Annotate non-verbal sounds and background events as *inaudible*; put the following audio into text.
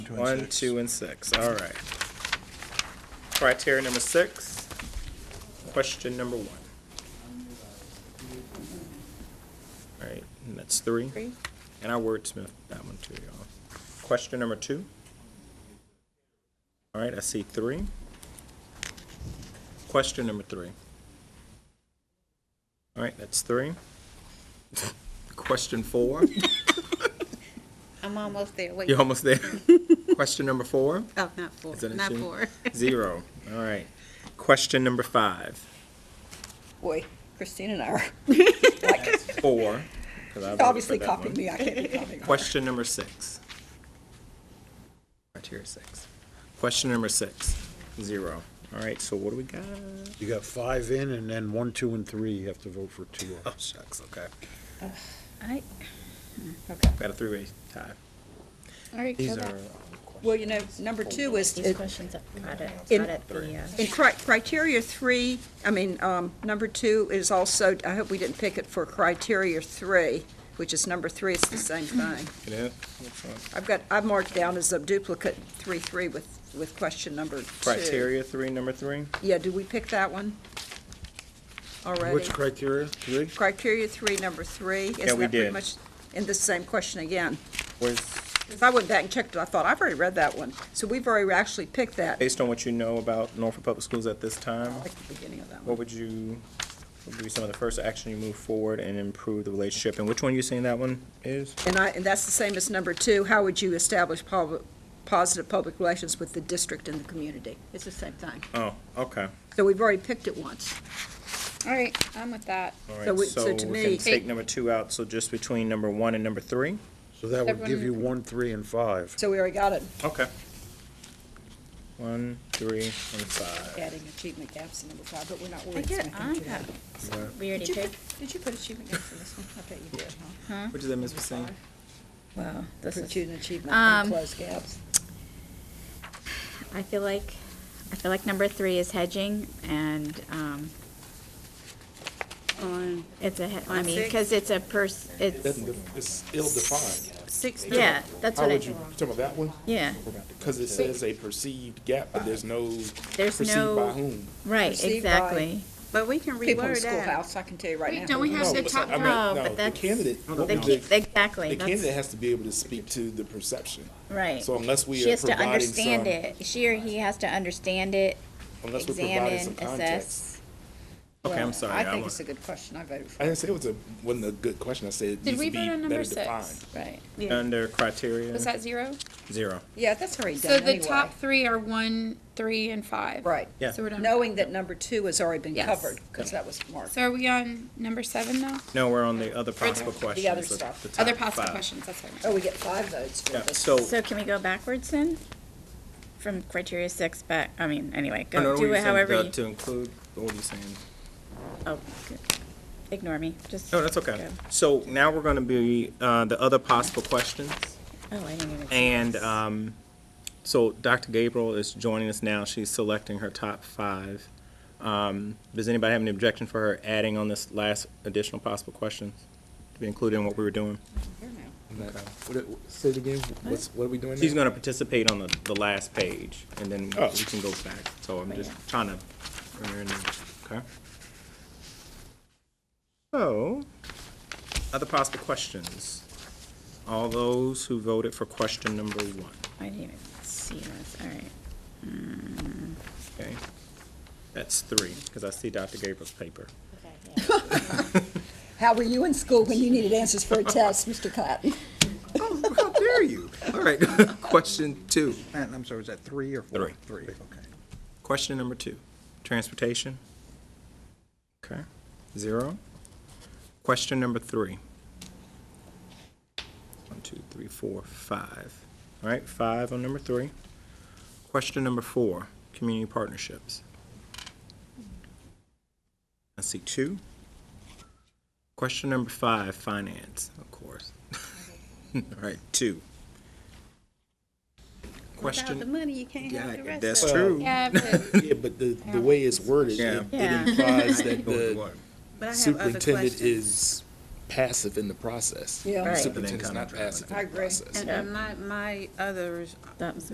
two, and One, six. two, and six, all right. Criteria number six, question number one. All right, and that's three. Three. And I wordsmith that one too, y'all. Question number two. All right, I see three. Question number three. All right, that's three. *laughs* Question four, *laughs* I'm almost there. Wait. you're almost *laughs* there. Question number four. Oh, not four. Is that a Not shame? four. *laughs* Zero. All right. Question number *laughs* five. Boy, Christine and I are Four. 'cause I voted for obviously that copying one. me. I can't be copying her. Question number six. Criteria six. Question number six. Zero. All right, so what do we got? You got five in, and then one, two, and three, you have to vote for two. Oh, shucks, okay. I- Got a three-way tie. All right, These go are, back. Well, you know, number two is, These questions are not at, In- not at the, uh, in cri- criteria three, I mean, um, number two is also, I hope we didn't pick it for criteria three, which is number three, it's the same thing. you know, I've got, I've marked down as a duplicate three, three with, with question number two. criteria three, number three. Yeah, do we pick that one already? Which criteria? Three? Criteria three, number three. Isn't we that pretty did. much In the same question again. Where's, If I went back and checked it, I thought, I've already read that one. So we've already actually picked that based on what you know about Norfolk Public Schools at this time, at the beginning of that one. what would you, what would be some of the first action you move forward and improve the relationship? And which one you saying that one is? And I, and that's the same as number two, how would you establish pub- positive public relations with the district and the community? It's the same thing. Oh, okay. So we've already picked it once. all right, I'm with that. All So we- right, so so we to can me- take number two out, so just between number one and number three? So that would give you one, three, and five. So we already got it. Okay. One, three, and five. Adding achievement gaps in number five, but we're not I worried. get It's on nothing to that. it. We already Did you did. put- Did you put achievement gaps in this one? I bet you did, huh? What does that miss Missing? Wow, this is. Pursuing achievement and Um, close gaps. I feel like, I feel like number three is hedging and, um, on it's a, he- I On mean, six? because it's a pers, it's, It's ill-defined. six, yeah, that's How what I, would you, you talking about that one? yeah, Because it says a perceived gap, but there's no there's perceived by no, whom. right, Perceived by- exactly. but we can People in the reword that. schoolhouse, I can tell you right now. Don't we have No, the but top I mean, five? No, no, but the that's- candidate, what The we- key, exactly, the candidate that's, has to be able to speak to the perception. right. So unless we She are has to providing some, understand it, she or he has to understand it, unless we're providing some examine, context. assess. Okay, I'm sorry. I I think was- it's a good question. I voted for I it. didn't say it was a, wasn't a good question. I said it Did needs we to be vote on number better six? defined. Right. Under criteria, Was that zero? zero. Yeah, that's already So done the anyway. top three are one, three, and five. Right. Yeah. So we're done. Knowing that number two has already been Yes. covered, because that was marked. So are we on number seven now? No, we're on the other possible questions. other stuff. top Other possible five. questions, that's what I meant. Oh, we get five votes for Yeah, this. so, So can we go backwards then? From criteria six back, I mean, anyway, no, no, go, what were do you it saying, however uh, you, to include, what were you saying? oh, good. ignore me, just. No, that's okay. go. So now we're gonna be, uh, the other possible questions. Oh, I didn't even. see And this. um, so Dr. Gabriel is joining us now. She's selecting her top five. Um, does anybody have any objection for her adding on this last additional possible questions to be included in what we were doing? What- what- Say it again. What's, what are we doing now? She's going to participate on the, the last page, and then Oh. we can go back. So I'm just yeah. trying to. bring her in there. Okay. So, other possible questions. All those who voted for question number one. I didn't even see this, all right. Okay, that's three, because I see Dr. Gabriel's paper. How were you in school when you needed answers for a test, Mr. Cotton? Oh, how dare you? All right, question two. And I'm sorry, was that three or four? Three. Three, okay. Question number two, transportation. Okay, zero. Question number three. One, two, three, four, five. All right, five on number three. Question number four, community partnerships. I see two. Question number five, finance, of course. *laughs* All right, two. Without the Question, money, you can't have the yeah, rest of that's it. true. Oh. Yeah, but Yeah, but the, the way it's worded, Yeah. it it Yeah. implies that Go with the what? But I have other superintendent questions. is passive in the process. Yeah. The Right. Superintendent's not passive in I the agree. process. And- And my, my others That was